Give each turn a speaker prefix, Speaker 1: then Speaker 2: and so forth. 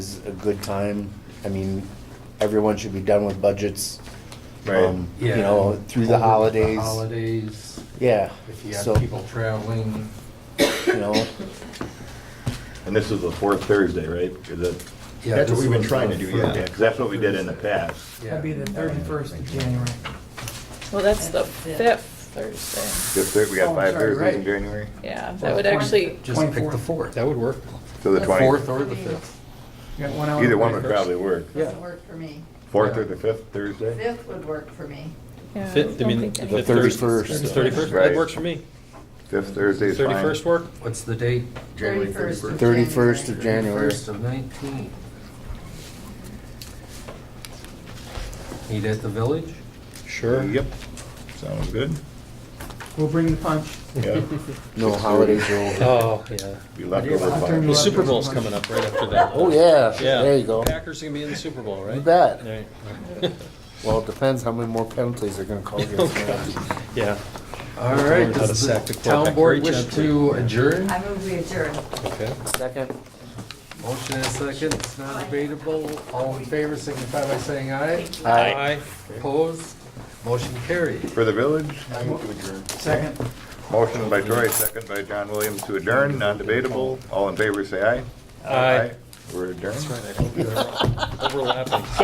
Speaker 1: a good time. I mean, everyone should be done with budgets.
Speaker 2: Right.
Speaker 1: um, You
Speaker 3: Yeah.
Speaker 1: know, through the
Speaker 3: Over
Speaker 1: holidays.
Speaker 3: Holidays,
Speaker 1: Yeah,
Speaker 3: if you
Speaker 1: so,
Speaker 3: have people traveling,
Speaker 1: you know,
Speaker 2: And this is the fourth Thursday, right? Is it-
Speaker 3: Yeah,
Speaker 2: That's what
Speaker 3: this
Speaker 2: we've been
Speaker 3: was
Speaker 2: trying
Speaker 3: the
Speaker 2: to do,
Speaker 3: fourth
Speaker 2: yeah, because that's what we did in the past.
Speaker 3: yeah.
Speaker 4: That'd be the thirty-first of January.
Speaker 5: Well, that's the
Speaker 6: That's the
Speaker 5: fifth Thursday.
Speaker 2: Just that We
Speaker 4: Oh,
Speaker 2: got
Speaker 4: I'm
Speaker 2: five
Speaker 4: sorry,
Speaker 2: Thursdays in
Speaker 4: right.
Speaker 2: January,
Speaker 5: Yeah, that would actually,
Speaker 7: Just pick the
Speaker 4: 24th.
Speaker 7: fourth, that would work.
Speaker 2: so the
Speaker 6: The
Speaker 2: twentieth.
Speaker 7: Fourth or the fifth.
Speaker 4: You got one hour.
Speaker 2: Either one
Speaker 4: break.
Speaker 2: would probably work.
Speaker 7: Yeah.
Speaker 6: Doesn't work for me.
Speaker 2: Fourth or the fifth Thursday?
Speaker 6: Fifth would work for me.
Speaker 5: yeah. I
Speaker 7: Fifth, I
Speaker 5: don't
Speaker 7: mean,
Speaker 5: think
Speaker 7: the
Speaker 5: any-
Speaker 1: The
Speaker 7: fifth Thursday.
Speaker 1: 31st.
Speaker 7: The Thirty-first,
Speaker 2: Right.
Speaker 7: that works for me.
Speaker 2: Fifth Thursday is fine.
Speaker 7: Thirty-first work?
Speaker 3: What's the date? January
Speaker 6: 31st.
Speaker 3: thirty-first.
Speaker 1: thirty-first of January.
Speaker 3: First of nineteen. Meet at the village?
Speaker 7: Sure.
Speaker 2: Yep, sounds good.
Speaker 4: We'll bring the punch.
Speaker 2: Yeah,
Speaker 1: No holidays are over.
Speaker 7: Oh, yeah.
Speaker 2: be leftover
Speaker 4: I'll turn
Speaker 2: fine.
Speaker 7: The Super Bowl's coming up right after that.
Speaker 1: Oh, yeah,
Speaker 7: Yeah.
Speaker 1: there you go.
Speaker 7: Packers are gonna be in the Super Bowl, right?
Speaker 1: You bet.
Speaker 7: Right.
Speaker 1: Well, it depends how many more penalties they're gonna call
Speaker 3: Oh,
Speaker 1: you.
Speaker 7: Yeah.
Speaker 3: All right,
Speaker 7: learned how
Speaker 3: does
Speaker 7: to sack
Speaker 3: the
Speaker 7: the
Speaker 3: town
Speaker 7: quarterback
Speaker 3: board
Speaker 7: very
Speaker 3: wish
Speaker 7: gently.
Speaker 3: to adjourn?
Speaker 6: I move we adjourn.
Speaker 7: Okay.
Speaker 1: Second.
Speaker 3: Motion is second, it's not debatable. All in favor, signify by saying aye.
Speaker 1: Aye.
Speaker 3: Opposed, motion carried.
Speaker 2: For the village,
Speaker 4: Second.
Speaker 2: motion by Troy, second by John Williams to adjourn, non-debatable. All in favor, say aye.
Speaker 7: Aye.
Speaker 2: We're adjourned.
Speaker 7: That's right, I hope they're overlapping.